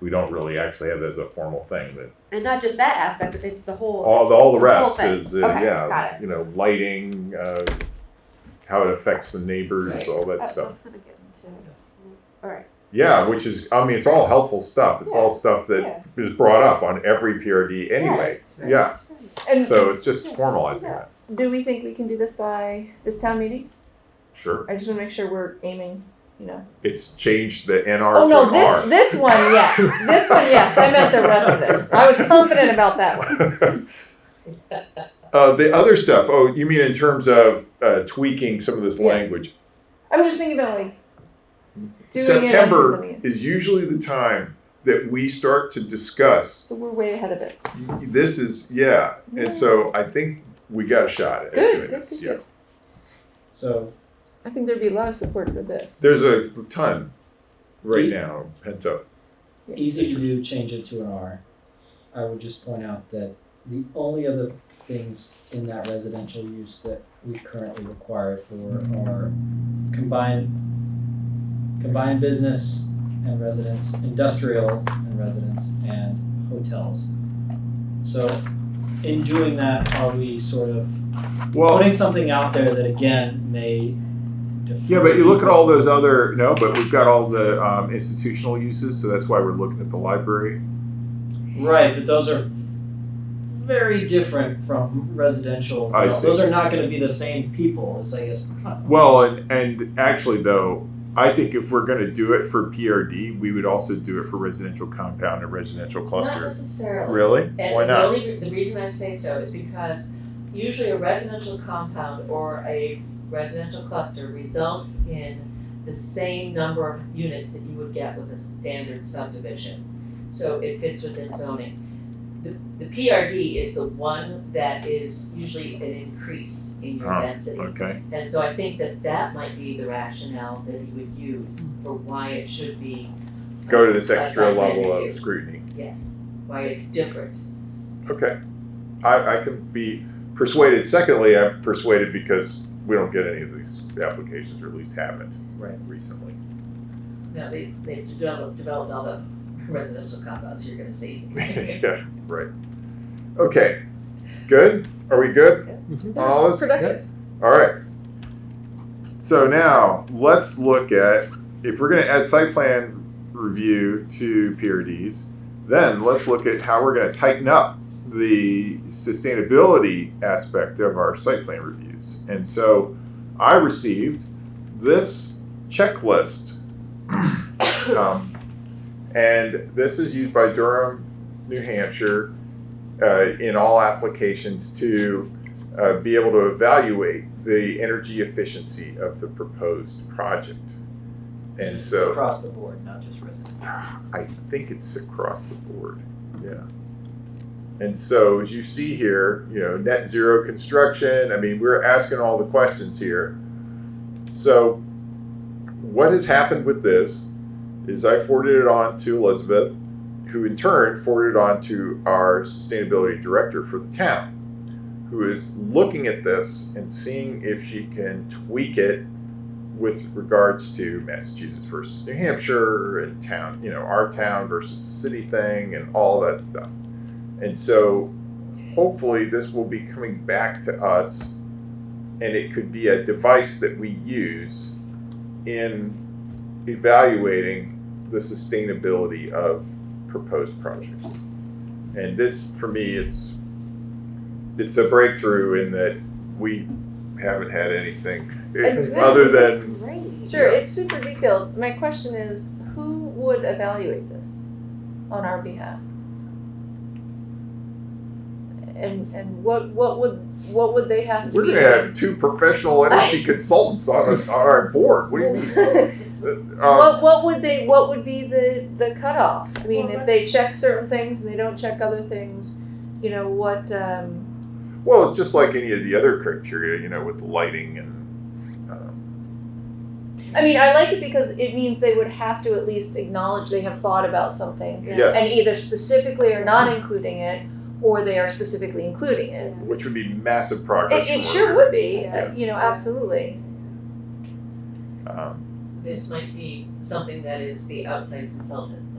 we don't really actually have that as a formal thing, but And not just that aspect, but it's the whole. all the, all the The whole rest thing. is, uh, Okay, got yeah, it. you know, lighting, uh, how it affects the neighbors, Right. all that Oh, so stuff. it's gonna get into some- All right. Yeah, which is, I mean, it's all helpful stuff. It's all stuff that Yeah. is brought up on every PRD anyway. Right. Yeah, And so it's just Yeah, formalizing yeah. that. do we think we can do this by this town meeting? Sure. I just want to make sure we're aiming, you know. It's changed the NR Oh to no, an this R. this one, yeah, this one, yes. I meant the rest of it. I was confident about that one. Uh, the other stuff. Oh, you mean in terms of uh, tweaking some of this Yeah. language? I'm just thinking about like doing it. and September presenting it. is usually the time that we start to discuss. So we're way ahead of it. This is yeah, Yeah. and so I think we got a shot at Good, doing good, this. good, yeah, good. So I think there'd be a lot of support for this. there's a ton right Yeah. now pent up. easy to do, change it to an R. I would just point out that the only other things in that residential use that we currently require for are combined combined business and residence, industrial and residence, and hotels. So in doing that, are we sort of Well, putting something out there that again may defer yeah, but you look at all those other no, but we've got all the um, institutional uses, so that's why we're looking at the library. Right, but those are very different from residential. I No, see. Those are not going to be the same people. As I guess. Well, and, and actually, though, I think if we're going to do it for PRD, we would also do it for residential compound and residential Not cluster. necessarily. Really? And Why the not? only, the reason I say so is because usually a residential compound or a residential cluster results in the same number of units that you would get with a standard subdivision. So it fits within zoning. The, the PRD is the one that is usually an increase in your Oh, density. Okay. And so I think that that might be the rationale that he would use for why it should be. Go to this a extra site plan level of review. scrutiny. Yes, why it's different. Okay. I, I can be persuaded. Secondly, I'm persuaded because we don't get any of these applications, or at least haven't Right. recently. No, they, they've developed, developed all the residential compounds you're gonna see. yeah, right. Okay. Good? Are we good? That was Oz? productive. All right. So now let's look at if we're going to add site plan review to PRDs, then let's look at how we're going to tighten up the sustainability aspect of our site plan reviews. And so I received this checklist. um, and this is used by Durham, New Hampshire, uh, in all applications to uh, be able to evaluate the energy efficiency of the proposed project. And so across the board, not just residential. I think it's across the board. Yeah. And so as you see here, you know, net zero construction, I mean, we're asking all the questions here. So what has happened with this is I forwarded it on to Elizabeth, who in turn forwarded it on to our sustainability director for the town, who is looking at this and seeing if she can tweak it with regards to Massachusetts versus New Hampshire and town, you know, our town versus the city thing and all that stuff. And so hopefully this will be coming back to us and it could be a device that we use in evaluating the sustainability of proposed projects. And this, for me, it's, it's a breakthrough in that we haven't had anything And this other is- than Great. Sure, Yeah. it's super detailed. My question is, who would evaluate this on our behalf? And and what what would what would they have to We're be? gonna have two professional energy consultants on, a, on our board. What do you mean? Um, what what would they what would be the the cutoff? I mean, Well, if they that's- check certain things and they don't check other things, you know what? Um, well, it's just like any of the other criteria, you know, with lighting and um, I mean, I like it because it means they would have to at least acknowledge they have thought about something Yeah. yes, and either specifically are not including it or they are specifically including it. which would be massive progress. It, it for sure her. would be, Yeah. uh, you know, absolutely. Um, This might be something that is the outside consultant